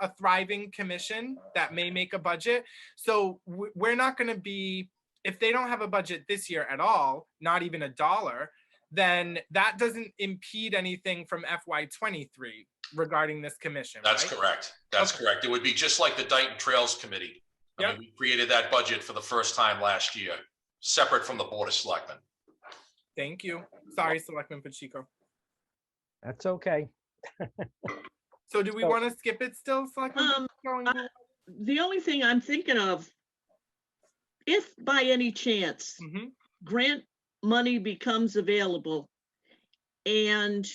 a thriving commission that may make a budget. So we- we're not going to be, if they don't have a budget this year at all, not even a dollar, then that doesn't impede anything from FY twenty-three regarding this commission, That's right? correct. That's correct. It would be just like the Dayton Trails Committee. I mean, Yep. we created that budget for the first time last year, separate from the Board of Selectmen. Thank you. Sorry, Selectman Pacheco. That's okay. So do we So- want to skip it still, Selectman? Um, Pacheco, and I- Goulart? the only thing I'm thinking of, if by any chance Mhm. grant money becomes available, and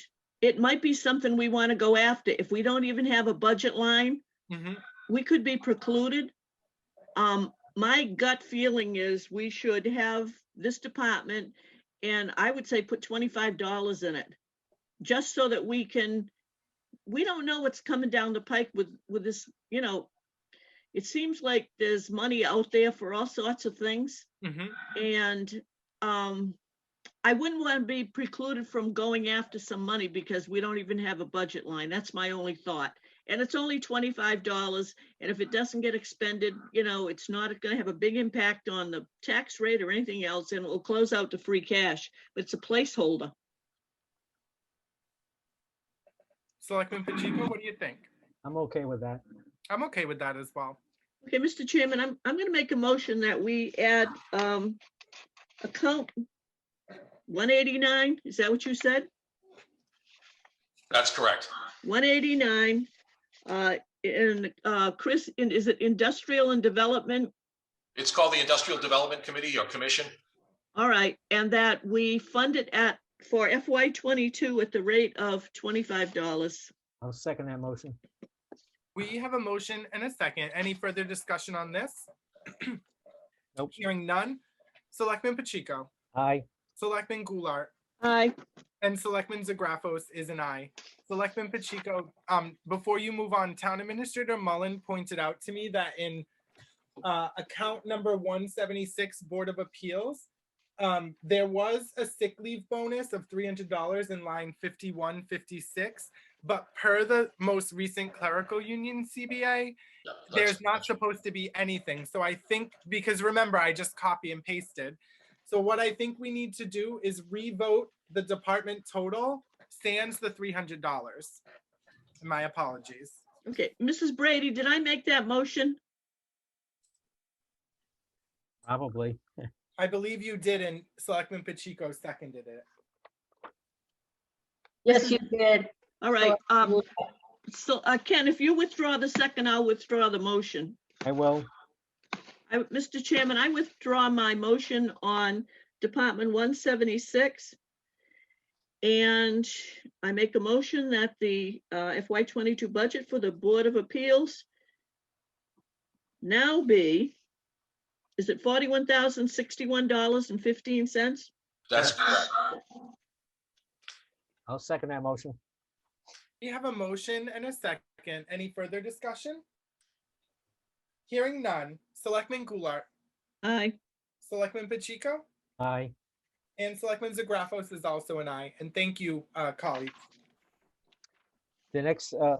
it might be something we want to go after, if we don't even have a budget line, Mhm. we could be precluded. Um, my gut feeling is we should have this department, and I would say put twenty-five dollars in it. Just so that we can, we don't know what's coming down the pike with, with this, you know. It seems like there's money out there for all sorts of things, Mhm. and, um. I wouldn't want to be precluded from going after some money because we don't even have a budget line. That's my only thought. And it's only twenty-five dollars. And if it doesn't get expended, you know, it's not gonna have a big impact on the tax rate or anything else, and it'll close out to free cash, but it's a placeholder. Selectman Pacheco, what do you think? I'm okay with that. I'm okay with that as well. Okay, Mr. Chairman, I'm, I'm gonna make a motion that we add, um, account one eighty-nine, is that what you said? That's correct. One eighty-nine, uh, in, uh, Chris, in- is it industrial and development? It's called the Industrial Development Committee or Commission. All right, and that we fund it at, for FY twenty-two at the rate of twenty-five dollars. I'll second that motion. We have a motion and a second. Any further discussion on this? Nope. Hearing none. Selectman Pacheco, Aye. Selectman Goulart, Aye. and Selectman Zagrafos is an aye. Selectman Pacheco, um, before you move on, Town Administrator Mullen pointed out to me that in uh, account number one seventy-six Board of Appeals, um, there was a sick leave bonus of three hundred dollars in line fifty-one fifty-six. But per the most recent clerical union CBA, Yeah, that's- there's not supposed to be anything. So I think, because remember, I just copy and pasted. So what I think we need to do is revote the department total, sans the three hundred dollars. My apologies. Okay, Mrs. Brady, did I make that motion? Probably. I believe you did, and Selectman Pacheco seconded it. Yes, you did. All right, um, will- so, uh, Ken, if you withdraw the second, I'll withdraw the motion. I will. I, Mr. Chairman, I withdraw my motion on Department one seventy-six. And I make a motion that the, uh, FY twenty-two budget for the Board of Appeals now be, is it forty-one thousand sixty-one dollars and fifteen cents? That's correct. I'll second that motion. We have a motion and a second. Any further discussion? Hearing none. Selectman Goulart, Aye. Selectman Pacheco, Aye. and Selectman Zagrafos is also an aye. And thank you, uh, colleagues. The next uh,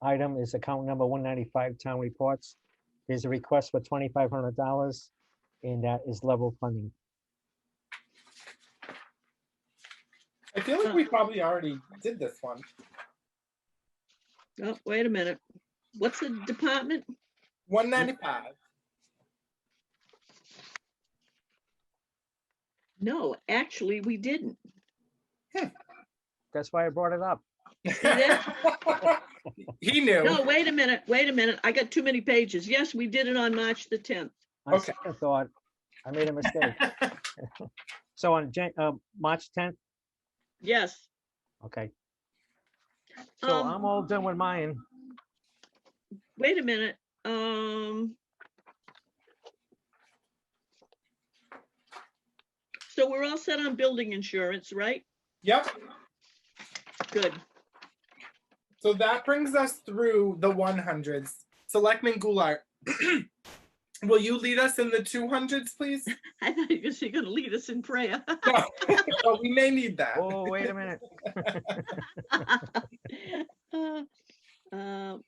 item is account number 195, Town Reports. There's a request for $2,500, and that is level funding. I feel like Uh. we probably already did this one. Oh, wait a minute. What's the department? One ninety-five. No, actually, we didn't. That's why I brought it up. Yeah. He No, knew. wait a minute, wait a minute. I got too many pages. Yes, we did it on March the tenth. On Okay. second thought, I made a mistake. So on Jan, uh, March 10th, Yes. okay. So Um, I'm all done with mine. Wait a minute, um. So we're all set on building insurance, right? Yep, Good. so that brings us through the one hundreds. Selectman Goulart. Will you lead us in the two hundreds, please? I thought you were gonna lead us in prayer. No, But we may need that. Oh, wait a minute. Uh, uh,